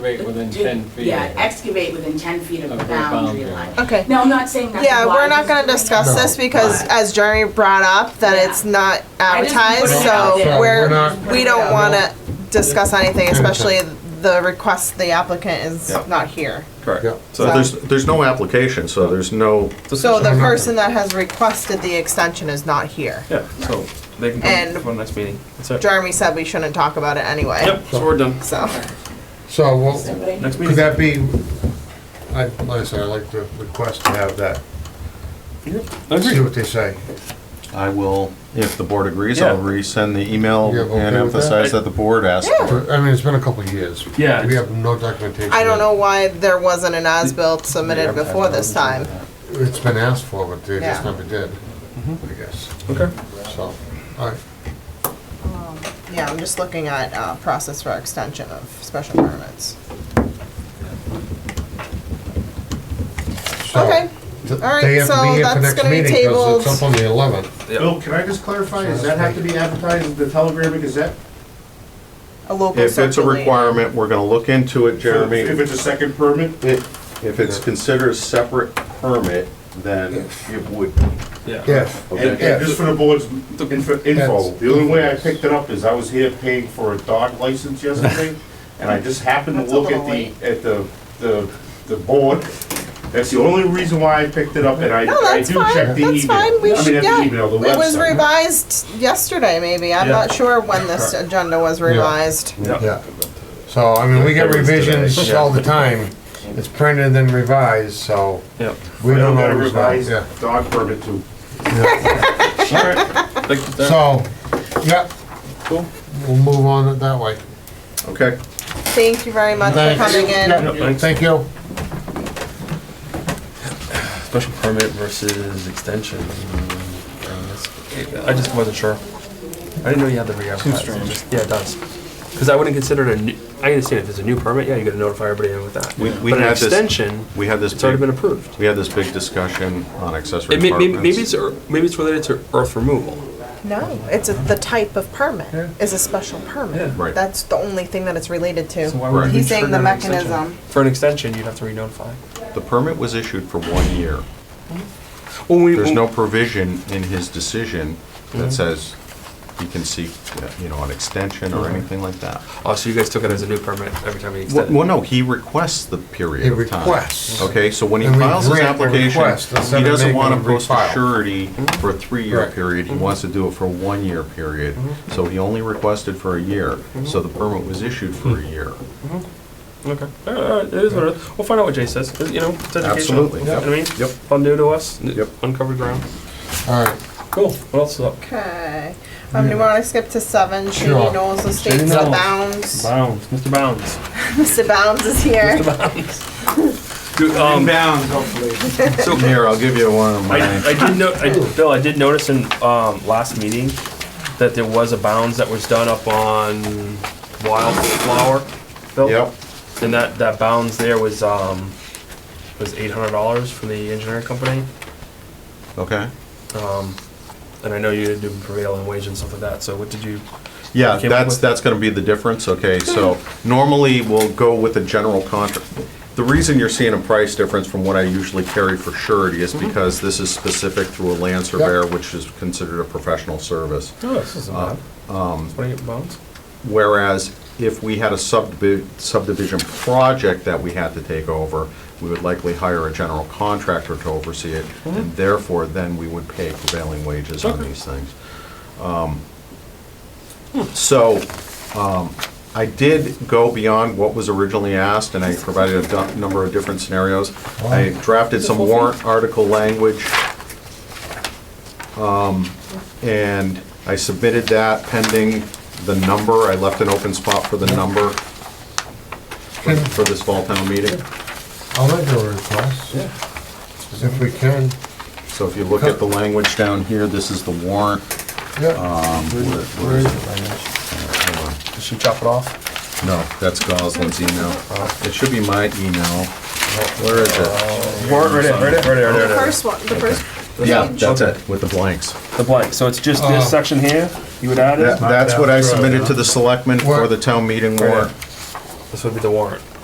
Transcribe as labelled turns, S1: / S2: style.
S1: Right within
S2: dig-
S1: 10 feet.
S2: Yeah, excavate within 10 feet of the
S1: Of the boundary
S2: boundary line.
S3: Okay.
S2: No, I'm not saying that's
S3: Yeah,
S2: why
S3: we're not
S2: he's
S3: gonna
S2: doing it.
S3: discuss this
S4: No.
S3: because, as Jeremy brought up,
S2: Yeah.
S3: that it's not
S2: I just
S3: advertised,
S2: put it out
S3: so
S2: there.
S4: we're
S3: we're,
S4: not-
S3: we don't
S4: Yeah.
S3: wanna discuss anything,
S4: Okay.
S3: especially the request the applicant is
S5: Yeah.
S3: not here.
S4: Yeah.
S5: Correct. So there's, there's no application, so there's no,
S3: So the
S4: Decision.
S3: person that has requested the extension is not here.
S6: Yeah, so they can come
S3: And-
S6: for the next meeting. That's it.
S3: Jeremy said we shouldn't talk about it anyway,
S6: Yep, so we're done.
S3: so.
S4: So,
S2: So,
S4: well,
S2: but I-
S6: Next
S4: could
S6: meeting.
S4: that be, I, like I said, I'd like to request to have that,
S6: I
S4: see
S6: agree.
S4: what they say.
S5: I will, if the board agrees, I'll
S6: Yeah.
S5: resend the email
S4: You okay
S5: and
S4: with that?
S5: emphasize that the board asked
S3: Yeah.
S5: for it.
S4: I mean, it's been a couple of years.
S6: Yeah.
S4: We have no documentation.
S3: I don't know why there wasn't an as-built submitted
S5: Yeah.
S3: before this time.
S4: It's been asked for, but they just
S3: Yeah.
S4: never did,
S6: Mm-hmm.
S4: I guess,
S6: Okay.
S4: so, all right.
S3: Yeah, I'm just looking at, uh, process for extension of special permits.
S4: So,
S3: Okay,
S4: th-
S3: all right,
S4: they have to
S3: so
S4: be here for
S3: that's
S4: next
S3: gonna be
S4: meeting 'cause
S3: tabled.
S4: It's up on the eleventh.
S7: Bill, can I just clarify, does that have to be advertised in the Telegram and Gazette?
S3: a local
S5: If it's a
S3: circulator.
S5: requirement, we're gonna look into it, Jeremy.
S7: If it's a second permit?
S5: It- If it's considered a separate permit, then it would be.
S6: Yeah.
S4: Yes.
S7: And,
S5: Okay.
S7: and just for the board's info, info, the only way I picked it up is I was here paying for a dog license yesterday, and I just happened to
S3: That's a
S7: look at
S3: little late.
S7: the, at the, the, the board. That's the only reason why I picked it up, and I,
S3: No,
S7: I
S3: that's
S7: do
S3: fine,
S7: check the email.
S3: that's fine, we
S7: I mean,
S3: should,
S7: at
S3: yeah.
S7: the email, the
S3: It was
S7: website.
S3: revised yesterday, maybe, I'm
S6: Yeah.
S3: not sure when this agenda was revised.
S4: Yeah. So, I mean, we get revisions all the time. It's printed and then revised, so
S6: Yeah.
S4: we
S7: I
S4: don't
S7: got a
S4: always know.
S7: revised
S4: Yeah.
S7: dog permit too.
S6: All right. Thank you.
S4: So, yeah,
S6: Cool.
S4: we'll move on it that way.
S5: Okay.
S3: Thank you very much for
S4: Thanks.
S3: coming in.
S6: Yeah, thanks.
S4: Thank you.
S6: Special permit versus extension. um, it's- I just wasn't sure. I didn't know you had the re-advertising. Yeah, it does. Because I wouldn't consider it a new, I understand if it's a new permit, yeah, you gotta notify everybody with that.
S5: We- we
S6: But an
S5: had this-
S6: extension,
S5: We had this,
S6: it's already been
S5: big-
S6: approved.
S5: we had this big discussion on accessory
S6: It may, may- maybe
S5: apartments.
S6: it's, ear- maybe it's related to earth removal.
S3: No, it's a- the type of permit, is a special permit.
S5: Right.
S3: That's the only thing that it's related
S6: So why
S3: to.
S6: would
S5: Right.
S6: we
S3: He's saying
S6: trigger
S3: the
S6: an extension?
S3: mechanism.
S6: For an extension, you'd have to re-notify.
S5: The permit was issued for one year.
S6: When we-
S5: There's
S6: when-
S5: no provision in his decision
S4: Mm-hmm.
S5: that says he can seek, you know, an extension or anything like that.
S6: Oh, so you guys took it as a new permit every time you
S5: Well,
S6: extended?
S5: well, no, he requests the period
S4: He
S5: of time.
S4: requests.
S5: Okay, so when he
S4: And we
S5: files his
S4: grant the
S5: application,
S4: request instead
S5: he
S4: of
S5: doesn't
S4: making
S5: want to
S4: him
S5: post a
S4: refile.
S5: surety for a three-year
S4: Mm-hmm. Right. Mm-hmm.
S5: period. He wants to do it for a one-year period. So he only requested for a year.
S4: Mm-hmm.
S5: So the permit was issued for a year.
S6: Okay, all right, all right, it is what it is. We'll find out what Jay says, you know, it's educational.
S5: Absolutely.
S6: You know what I mean?
S5: Yep.
S6: All new to us, n-
S5: Yep.
S6: uncovered ground.
S4: All right.
S6: Cool, what else is up?
S3: Okay, um, do you wanna skip to seven, Shady
S4: Sure.
S3: Knowles Estates,
S6: Shady Knowles.
S3: Bounds?
S6: Bounds, Mr. Bounds.
S3: Mr. Bounds is here.
S6: Dude, um,
S7: Bound, hopefully.
S6: so,
S5: Here, I'll give you one of
S6: I,
S5: mine.
S6: I did note, I, Bill, I did notice in, um, last meeting that there was a bounds that was done up on Wildflower. Bill?
S5: Yep,
S6: And that, that bounds there was, um, was eight hundred dollars from the engineering company.
S5: okay.
S6: Um, and I know you do prevailing wage and stuff like that, so what did you,
S5: Yeah,
S6: Came up
S5: that's,
S6: with-
S5: that's gonna be the difference, okay, so normally we'll go with a general contract. The reason you're seeing a price difference from what I usually carry for surety is because this is specific through a land surveyor, which is considered a professional service.
S6: oh, this isn't bad. Um. Twenty-eight bounds?
S5: Whereas if we had a subdivi- subdivision project that we had to take over, we would likely hire a general contractor to oversee it, and therefore, then we would pay prevailing wages on
S6: Okay.
S5: these things. Um, So, um, I did go beyond what was originally asked, and I provided a du- number of different scenarios. I drafted some warrant article language um, and I submitted that pending the number. I left an open spot for the number for for this fall town meeting.
S4: I'll make a request. If we can.
S5: So if you look at the language down here, this is the warrant.
S4: Yeah.
S5: Um, where- where is it? Hold on.
S6: Did she chop it off?
S5: No, that's Goslin's email. It should be my email. Where is it?
S6: Right, right, right, right,
S3: The first one, the first,
S5: Yeah, that's it, with the blanks.
S6: The blank, so it's just
S4: Oh.
S6: this section here, you would add
S5: That-
S6: it?
S5: That's what I submitted to the selectmen for the town meeting warrant.
S6: This would be the warrant.